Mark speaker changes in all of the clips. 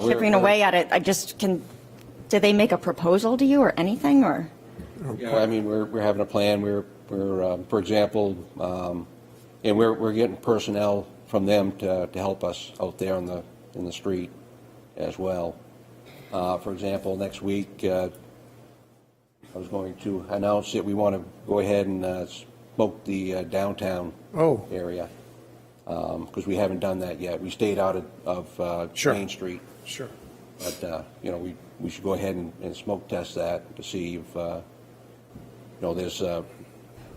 Speaker 1: we're-
Speaker 2: chipping away at it, I just can, did they make a proposal to you or anything, or?
Speaker 1: Yeah, I mean, we're, we're having a plan, we're, we're, um, for example, um, and we're, we're getting personnel from them to, to help us out there on the, in the street as well. Uh, For example, next week, uh, I was going to announce that we want to go ahead and uh, smoke the uh, downtown
Speaker 3: Oh.
Speaker 1: area, because we haven't done that yet. We stayed out of, of uh,
Speaker 3: Sure.
Speaker 1: Main Street.
Speaker 3: Sure.
Speaker 1: But, uh, you know, we, we should go ahead and, and smoke test that to see if, uh, you know, there's, uh,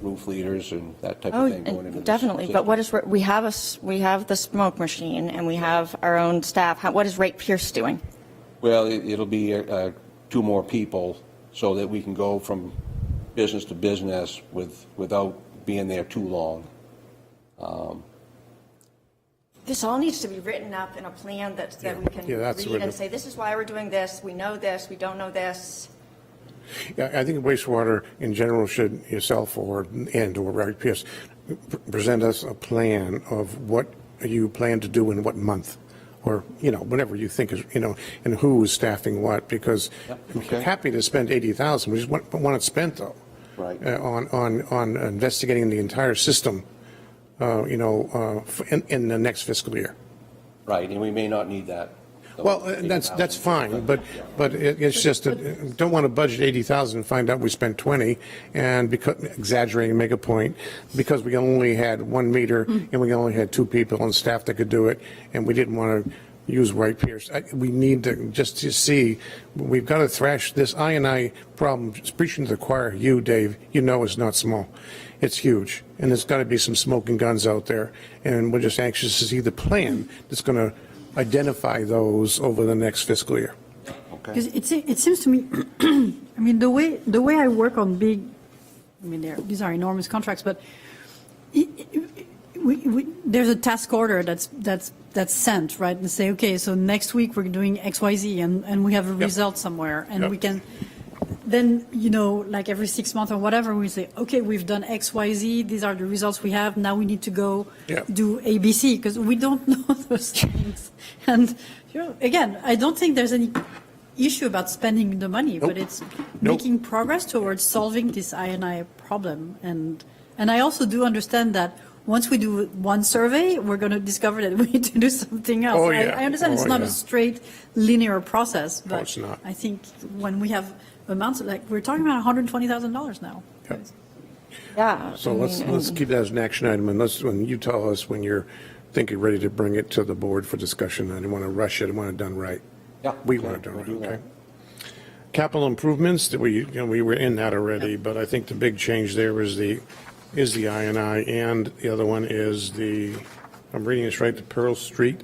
Speaker 1: roof leaders and that type
Speaker 2: Oh,
Speaker 1: of thing going into
Speaker 2: and
Speaker 1: this.
Speaker 2: definitely, but what is, we have a, s- we have the smoke machine, and we have our own staff, How- what is Rate Pierce doing?
Speaker 1: Well, it, it'll be, uh, two more people so that we can go from business to business with, without being there too long.
Speaker 2: This all needs to be written up in a plan that, that we can
Speaker 3: Yeah, that's
Speaker 2: read
Speaker 3: written.
Speaker 2: and say, this is why we're doing this, we know this, we don't know this.
Speaker 3: Yeah, I think wastewater in general should, yourself or, and/or Reg Pierce, p- present us a plan of what you plan to do in what month, or, you know, whatever you think is, you know, and who is staffing what, because I'm
Speaker 1: okay.
Speaker 3: happy to spend 80,000, we just want, want it spent, though.
Speaker 1: Right.
Speaker 3: uh, On, on, on investigating the entire system, uh, you know, uh, f- in, in the next fiscal year.
Speaker 1: Right, and we may not need that.
Speaker 3: Well, uh, that's, that's fine, but, but it- it's just, that, don't want to budget 80,000 and find out we spent 20, and because, exaggerating, make a point, because we only had one meter, and we only had two people on staff that could do it, and we didn't want to use Wright Pierce. I- We need to, just to see, we've got to thrash this I and I problem, Just preaching to the choir, you, Dave, you know it's not small. It's huge, and there's got to be some smoking guns out there, and we're just anxious to see the plan that's going to identify those over the next fiscal year.
Speaker 4: Because it, se- it seems to me, I mean, the way, the way I work on big, I mean, they're, these are enormous contracts, but i- i- we, we, there's a task order that's, that's, that's sent, right? And say, okay, so next week we're doing X, Y, Z, and, and we have a result somewhere, and
Speaker 3: Yep.
Speaker 4: we can, then, you know, like every six months or whatever, we say, okay, we've done X, Y, Z, these are the results we have, now we need to go
Speaker 3: Yeah.
Speaker 4: do A, B, C, because we don't know those things. And, you know, again, I don't think there's any issue about spending the money, but
Speaker 3: Nope.
Speaker 4: it's
Speaker 3: Nope.
Speaker 4: making progress towards solving this INI problem. And, and I also do understand that once we do one survey, we're going to discover that we need to do something else.
Speaker 3: Oh,
Speaker 4: I-
Speaker 3: yeah.
Speaker 4: I understand it's
Speaker 3: Oh,
Speaker 4: not a
Speaker 3: yeah.
Speaker 4: straight linear process, but
Speaker 3: it's not.
Speaker 4: I think when we have amounts, like, we're talking about $120,000 now.
Speaker 3: Yep.
Speaker 2: Yeah.
Speaker 3: So let's, let's keep that as an action item, and let's, when you tell us when you're thinking, ready to bring it to the board for discussion, I don't want to rush it, I want it done right.
Speaker 1: Yeah.
Speaker 3: We want it done right, okay? Capital improvements, that we, you know, we were in that already, but I think the big change there is the, is the I and I, and the other one is the, if I'm reading this right, the Pearl Street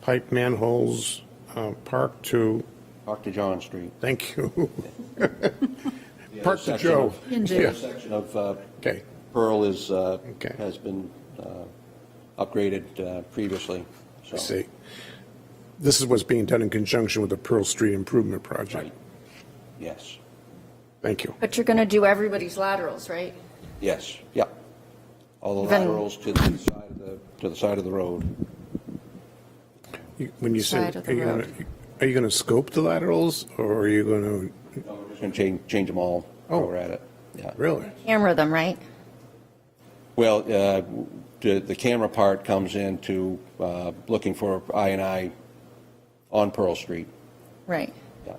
Speaker 3: pipe manholes, uh, Park to,
Speaker 1: Talk to John Street.
Speaker 3: thank you,
Speaker 1: The other
Speaker 3: Park to
Speaker 1: section
Speaker 3: Joe.
Speaker 1: of-
Speaker 4: Ian
Speaker 1: The
Speaker 4: Joe.
Speaker 1: other section of uh,
Speaker 3: Okay.
Speaker 1: Pearl is, uh,
Speaker 3: Okay.
Speaker 1: has been uh, upgraded uh, previously, so.
Speaker 3: I see. This is what's being done in conjunction with the Pearl Street Improvement Project.
Speaker 1: Right. Yes,
Speaker 3: Thank you.
Speaker 2: But you're going to do everybody's laterals, right?
Speaker 1: yes, yeah. All the
Speaker 2: Then-
Speaker 1: laterals to the side of the, to the side of the road.
Speaker 3: You- When you say,
Speaker 2: Side of the
Speaker 3: are you going
Speaker 2: road.
Speaker 3: to, are you going to scope the laterals, or are you going to,
Speaker 1: No, We're just going to change, change them all while
Speaker 3: Oh.
Speaker 1: we're at it, yeah.
Speaker 3: really?
Speaker 2: Camera them, right?
Speaker 1: Well, uh, the, the camera part comes into uh, looking for I and I on Pearl Street,
Speaker 2: Right.
Speaker 1: yeah.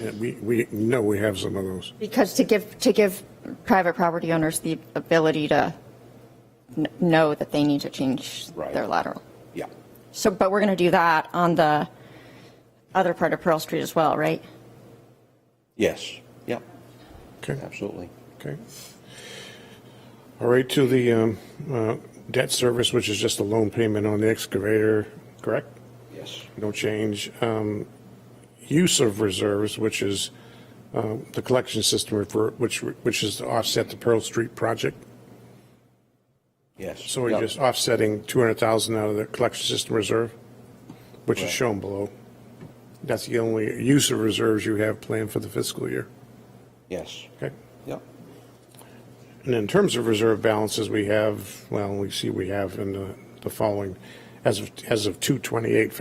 Speaker 3: Yeah, We, we know we have some of those.
Speaker 2: Because to give, to give private property owners the ability to kn- know that they need to change
Speaker 1: Right.
Speaker 2: their lateral.
Speaker 1: Yeah,
Speaker 2: So, but we're going to do that on the other part of Pearl Street as well, right?
Speaker 1: yes, yeah,
Speaker 3: Okay,
Speaker 1: absolutely.
Speaker 3: okay. All right, to the um, uh, debt service, which is just a loan payment on the excavator, correct?
Speaker 1: Yes,
Speaker 3: no change. Um, Use of reserves, which is uh, the collection system, for which, which is to offset the Pearl Street project.
Speaker 1: yes.
Speaker 3: So we're
Speaker 1: yeah.
Speaker 3: just offsetting 200,000 out of the collection system reserve, which is
Speaker 1: Right.
Speaker 3: shown below. That's the only use of reserves you have planned for the fiscal year.
Speaker 1: Yes,
Speaker 3: Okay?
Speaker 1: yeah,
Speaker 3: And in terms of reserve balances, we have, well, we see we have in the the following, as of, as of 228,